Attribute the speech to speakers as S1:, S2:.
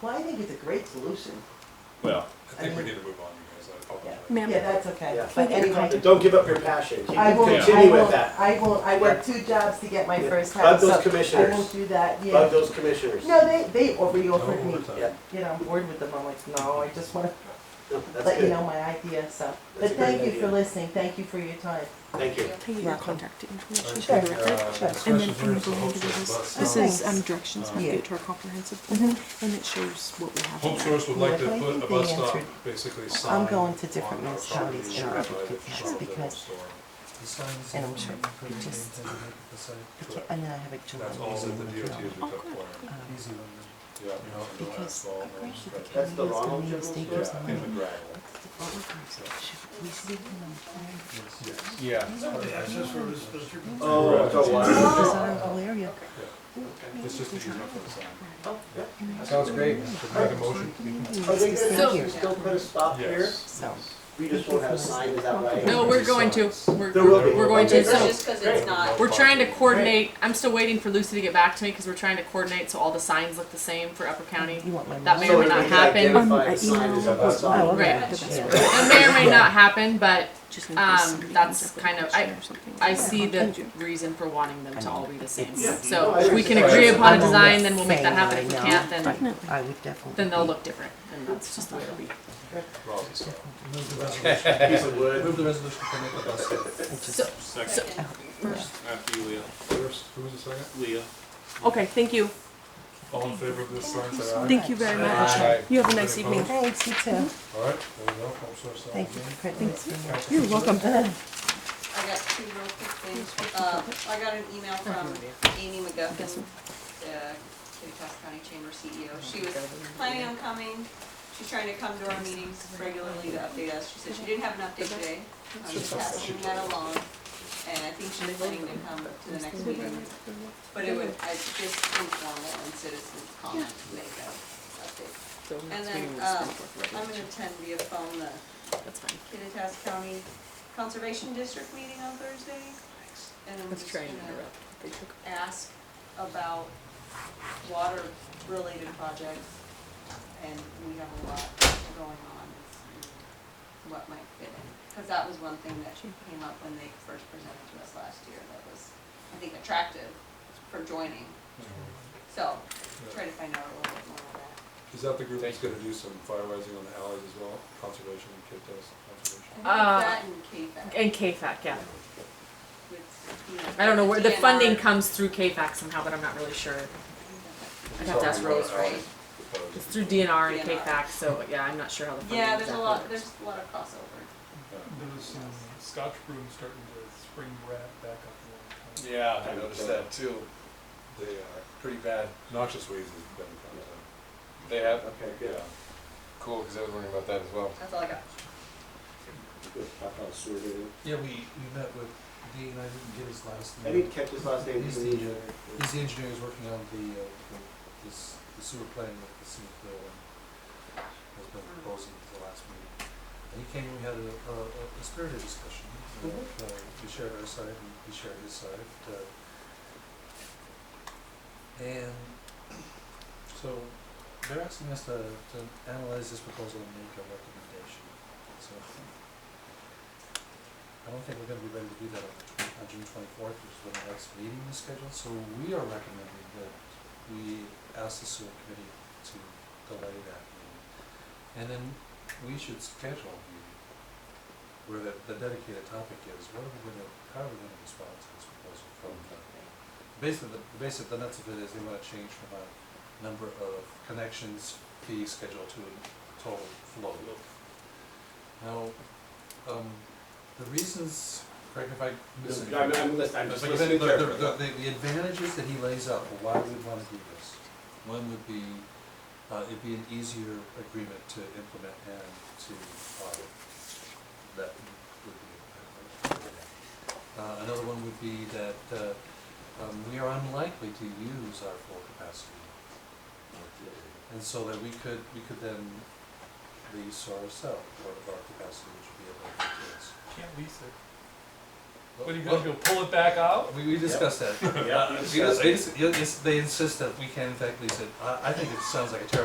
S1: Well, I think it's a great solution.
S2: Well,
S3: I think we need to move on, you guys, I apologize.
S4: Ma'am.
S1: Yeah, that's okay.
S5: Yeah.
S1: But
S5: But
S1: anyway,
S5: Don't give up your passion, keep,
S1: I won't, I
S5: continue with
S1: won't,
S5: that.
S1: I won't, I worked two jobs to get my
S5: Yeah.
S1: first
S5: Bug
S1: house, so
S5: those
S1: I
S5: commissioners.
S1: won't do that,
S5: Bug
S1: yeah.
S5: those commissioners.
S1: No, they, they already offered me,
S3: Overtime.
S5: Yeah.
S1: you know, I'm bored with them, I'm like, no, I just wanna
S5: No, That's
S1: let you
S5: good,
S1: know my idea, so. But
S5: That's a great
S1: thank you for
S5: idea.
S1: listening, thank you for your time.
S5: thank you.
S4: Can you
S1: Yeah.
S4: your contact information
S3: Alright,
S4: for the
S3: uh,
S4: record?
S3: discussion
S4: And then can you
S3: minutes
S4: go
S3: of Hope
S4: ahead and do
S3: Source
S4: this?
S3: bus.
S4: This
S1: stop.
S4: is um, directions
S3: Uh,
S4: update
S1: Yeah.
S4: to our comprehensive plan,
S1: Mhm.
S4: and it shows what we have.
S3: Hope
S4: in
S3: Source would like to
S1: Yeah, I
S3: put
S1: think
S3: a
S1: they
S3: bus stop,
S1: answered.
S3: basically sign.
S1: I'm going to different
S3: on our property
S1: municipalities in order to
S3: surrounded by
S1: get
S3: the
S1: gas
S3: Shell
S1: because
S3: Store.
S1: And I'm sure just- I can't- And then I have a job. Um,
S3: That's all that the DOT has
S4: Oh,
S3: required.
S4: good.
S3: Yeah, you know, no
S1: Because
S3: asphalt, no
S4: Agreed, the
S3: stretch.
S5: That's the
S1: county is
S5: Ronald
S1: gonna
S5: General
S1: use state
S5: Store?
S1: use
S3: Yeah,
S1: money.
S3: in the gravel.
S4: Should we see them on plan?
S2: yeah.
S5: Oh, it's all wild.
S4: This is our whole area.
S3: It's just easier for the sign.
S5: Oh, yeah.
S2: Sounds great.
S3: Should we make a motion?
S5: Are they
S4: This is
S5: gonna
S4: here.
S5: just still put a stop here?
S3: Yes.
S1: So.
S5: We just won't have signs, is that right?
S6: No, we're going to, we're,
S5: There will be.
S6: we're going to,
S5: Okay,
S6: so,
S5: great.
S7: Just because it's not,
S6: we're trying to coordinate, I'm still waiting for Lucy to get back to me, cause we're trying to coordinate so all the signs look the same for Upper County.
S1: You want my.
S6: That may
S1: money?
S5: So
S6: or may
S5: if
S6: not
S5: we can
S6: happen.
S4: Um,
S5: Identify
S4: I
S5: the sign is
S4: emailed.
S5: about
S4: Oh,
S5: sign.
S4: okay,
S6: Right.
S4: that's
S1: Yeah.
S4: great.
S6: It may or may not happen, but
S4: Just in case
S6: Um,
S4: somebody
S6: that's
S4: comes up with
S6: kind
S4: a
S6: of-
S4: question or something.
S6: I see the
S4: Thank you.
S6: reason for wanting them to all be the same.
S5: Yeah.
S6: So if we can agree upon a design, then we'll make that happen, if we can't, then,
S4: Definitely.
S1: I would definitely.
S6: then they'll look different, and that's just the way it'll be.
S3: Rob is sorry.
S5: Piece of wood.
S3: the resolution to permit the bus stop.
S6: So,
S2: Second, after you, Leah.
S3: First, who was the second?
S2: Leah.
S4: Okay, thank you.
S3: All in favor of this sign, say aye.
S4: Thank you very much.
S2: Aye.
S4: You have a nice evening.
S1: Thanks, you too.
S3: All right, there we go, Hope Source. that
S1: Thank
S3: was
S1: you
S3: in.
S1: for printing this for me.
S4: You're welcome.
S7: I got two real quick things. Uh, I got an email from Amy McGuffin, the Kittitas County Chamber CEO. She was planning on coming. She's trying to come to our meetings regularly to update us. She said she didn't have an update today. Um, I'm just passing that along. And I think she's planning to come to the next meeting. But it would, I just informal and citizen comment to make that update. And then, uh, I'm gonna attend via phone the
S6: that's fine.
S7: Kittitas County Conservation District meeting on Thursday. And I'm
S6: Let's
S7: just
S6: try
S7: gonna
S6: and interrupt. They took
S7: ask about water-related projects, and we have a lot going on, and what might fit in. Because that was one thing that came up when they first presented to us last year, that was, I think, attractive for joining. So, try to find out a little bit more of that.
S3: Is that the group that's gonna do some fireizing on the alleys as well, conservation, kid does conservation?
S6: Uh,
S7: I think that and KFAC
S6: And KFAC, yeah.
S7: with, you know.
S6: I don't know where, the
S7: DNR.
S6: funding comes through KFAC somehow, but I'm not really sure. I'd have to ask Rose,
S7: right?
S6: It's through DNR and
S7: DNR.
S6: KFAC, so yeah, I'm not sure how the funding
S7: Yeah, there's a
S6: exactly
S7: lot,
S6: works.
S7: there's a lot of crossover.
S8: Those um, Scotch broom starting to spring rat back up a little.
S2: Yeah, I noticed that too.
S3: They are,
S2: Pretty bad.
S3: noxious weeds has been found
S2: They have,
S5: Okay,
S3: out.
S5: good.
S2: cool, because I was wondering about that as well.
S7: That's all I got.
S5: Good. I felt sore, dude.
S9: Yeah, we, we met with Dean, I didn't get his last
S5: I
S9: name.
S5: didn't catch his last name,
S9: He's
S5: He's
S9: the,
S5: the-
S9: He's the engineer who's working on the, uh, the, this, the sewer plan that the city built and has been proposing for the last meeting. And he came, and we had a, a, a spirited discussion, you know, uh, we shared our side, and he shared his side, uh, and so they're asking us to, to analyze this proposal and make a recommendation, so. I don't think we're gonna be ready to do that on the tw- on June twenty-fourth, which is when the next meeting is scheduled, so we are recommending that we ask the sewer committee to delay that meeting. And then we should schedule a meeting where the, the dedicated topic is, what are we gonna, how are we gonna respond to this proposal from the Basically, the, basically the nuts of it is they wanna change from a number of connections fee schedule to a total flow. Now, um, the reasons, Craig, if I miss
S5: I'm, I'm listening, I'm just
S9: but
S5: listening
S9: the, the,
S5: carefully.
S9: the, the- the advantages that he lays out for why we'd wanna do this, one would be, uh, it'd be an easier agreement to implement and to audit. That would be. Uh, another one would be that, uh, um, we are unlikely to use our full capacity. And so that we could, we could then lease or sell part of our capacity, which would be available to us.
S8: Can't lease it.
S9: But-
S8: What are you
S9: but-
S8: gonna do, pull it back out?
S9: we, we discussed that.
S5: Yeah,
S9: Uh, we just- they just- you know, it's- they insist that we can in fact lease it. I, I think it sounds like a terrible